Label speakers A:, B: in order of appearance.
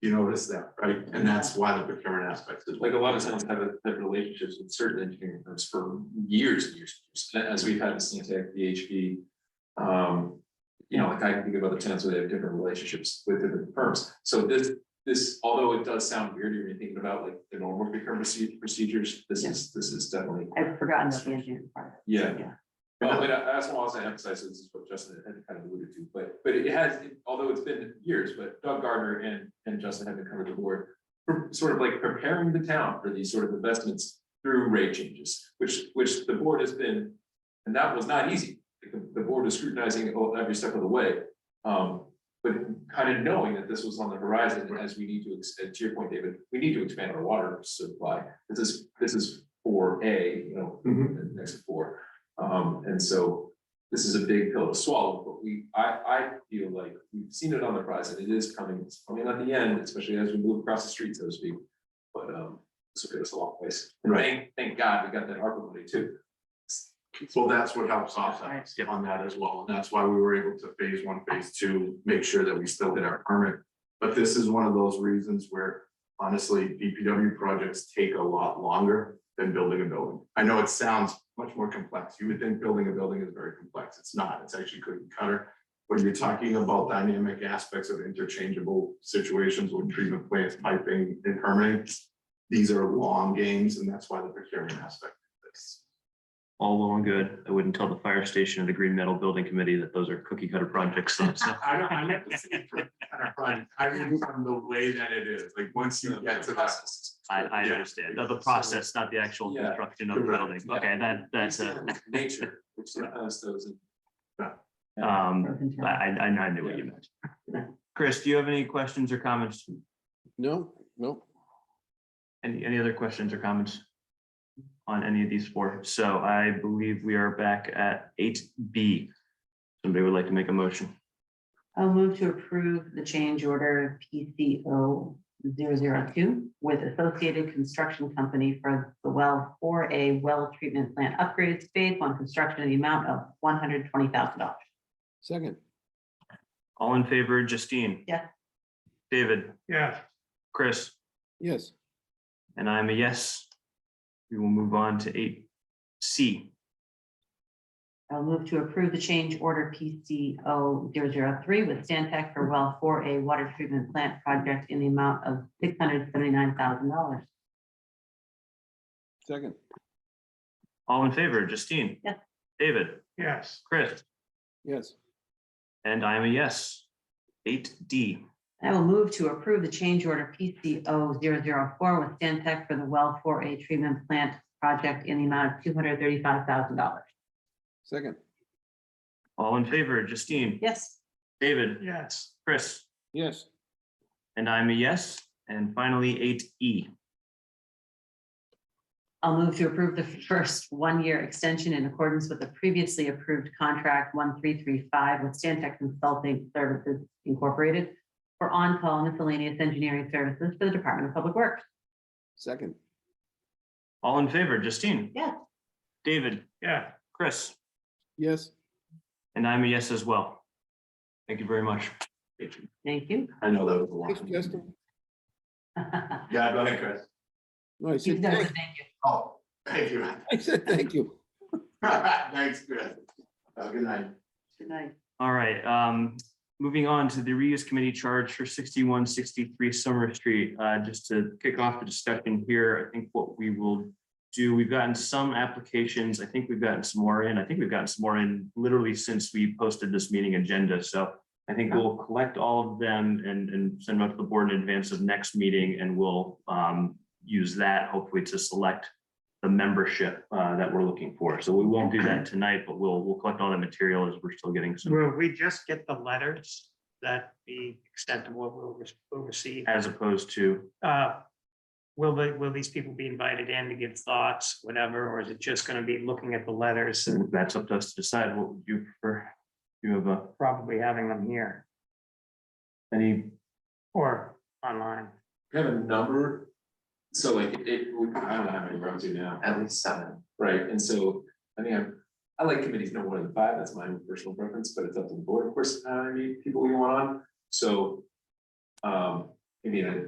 A: You notice that, right? And that's why the procurement aspect is.
B: Like a lot of towns have have relationships with certain engineering firms for years and years, and years, as we've had in Stantec, VHP. Um, you know, like I can think of other towns where they have different relationships with different firms. So this, this, although it does sound weird, you're thinking about like the normal procurement proce- procedures, this is, this is definitely,
C: I've forgotten about the engineering part.
B: yeah.
C: Yeah.
B: Well, but I- that's what I was gonna emphasize, this is what Justin had kind of alluded to, but, but it has, although it's been years, but Doug Gardner and, and Justin have been coming to board. for- Sort of like preparing the town for these sort of investments through rate changes, which, which the board has been, and that was not easy. The, the board was scrutinizing it all- every step of the way, um, but kind of knowing that this was on the horizon as we need to, ex- to your point, David, we need to expand our water supply. This is, this is for A, you know,
A: Mhm.
B: and next to four. Um, and so this is a big pill to swallow, but we, I, I feel like we've seen it on the prize and it is coming, it's coming at the end, especially as we move across the street, so to speak. But, um, this will get us a long ways. And
A: Right.
B: Thank, thank God we got that ARPA money too.
A: Well, that's what helps offset us on that as well, and that's why we were able to phase one, phase two, make sure that we still did our permit. But this is one of those reasons where honestly, DPW projects take a lot longer than building a building. I know it sounds much more complex, you would think building a building is very complex, it's not, it's actually cookie cutter. When you're talking about dynamic aspects of interchangeable situations with treatment plants, piping, and permitting, these are long games, and that's why the procurement aspect of this.
D: all well and good. I wouldn't tell the fire station or the green metal building committee that those are cookie cutter projects. so- so-
A: I don't, I like to see it from, kind of front. I mean, from the way that it is, like, once you get to that.
D: I, I
A: Yeah.
D: understand. The the process, not the actual
B: Yeah.
D: construction of the
A: Correct.
D: building. Okay, that, that's a,
B: Nature, which sometimes those.
D: um,
C: Broken
D: I,
C: down.
D: I, I knew what you meant. Chris, do you have any questions or comments?
E: No, no.
D: Any, any other questions or comments? On any of these four? So I believe we are back at eight B. Somebody would like to make a motion.
C: I'll move to approve the change order PCO 002 with Associated Construction Company for the well for a well treatment plant upgrades phase one construction in the amount of one hundred twenty thousand dollars.
E: Second,
D: All in favor, Justine?
C: Yeah.
D: David? Yeah. Chris?
E: yes.
D: And I'm a yes. We will move on to eight C.
C: I'll move to approve the change order PCO 003 with Stantec for well for a water treatment plant project in the amount of six hundred seventy-nine thousand dollars.
E: Second,
D: All in favor, Justine?
C: Yeah.
D: David? Yes. Chris?
E: yes.
D: And I'm a yes. Eight D.
C: I will move to approve the change order PCO 004 with Stantec for the well for a treatment plant project in the amount of two hundred thirty-five thousand dollars.
E: Second,
D: All in favor, Justine?
C: Yes,
D: David? Yes. Chris?
E: yes.
D: And I'm a yes. And finally, eight E.
C: I'll move to approve the first one-year extension in accordance with the previously approved contract one three three five with Stantec Consulting Services Incorporated for on-call miscellaneous engineering services for the Department of Public Works.
E: Second,
D: All in favor, Justine?
C: Yeah.
D: David? Yeah. Chris?
E: yes.
D: And I'm a yes as well. Thank you very much.
C: Thank you.
A: I know that was a
E: Thanks,
A: lot.
E: Justin.
A: Yeah, go ahead, Chris.
E: No, I
C: You've
E: said,
C: done it.
E: thank-
C: Thank you.
A: Oh, thank you.
E: I said, thank you.
A: Thanks, Chris. Have a good night.
C: Good night.
D: All right, um, moving on to the reuse committee charge for sixty-one sixty-three Summer Street. Uh, just to kick off the discussion here, I think what we will do, we've gotten some applications. I think we've gotten some more in. I think we've gotten some more in literally since we posted this meeting agenda. So I think we'll collect all of them and, and send them out to the board in advance of next meeting and we'll, um, use that hopefully to select the membership, uh, that we're looking for. So we won't do that tonight, but we'll, we'll collect all the material as we're still getting some.
F: Will we just get the letters? That the extent of what we'll, re- we'll receive?
D: as opposed to,
F: Uh, Will they, will these people be invited in to give thoughts, whatever, or is it just gonna be looking at the letters and
D: that's up to us to decide what would you prefer. Do You have uh, a,
F: probably having them here
D: any,
F: or online?
B: We have a number, so like it, it would- I don't know how many we're up to now. At least seven. Right, and so, I mean, I'm, I like committees no more than five, that's my personal preference, but it's up to the board, of course, how many people we want on, so. Um, maybe in a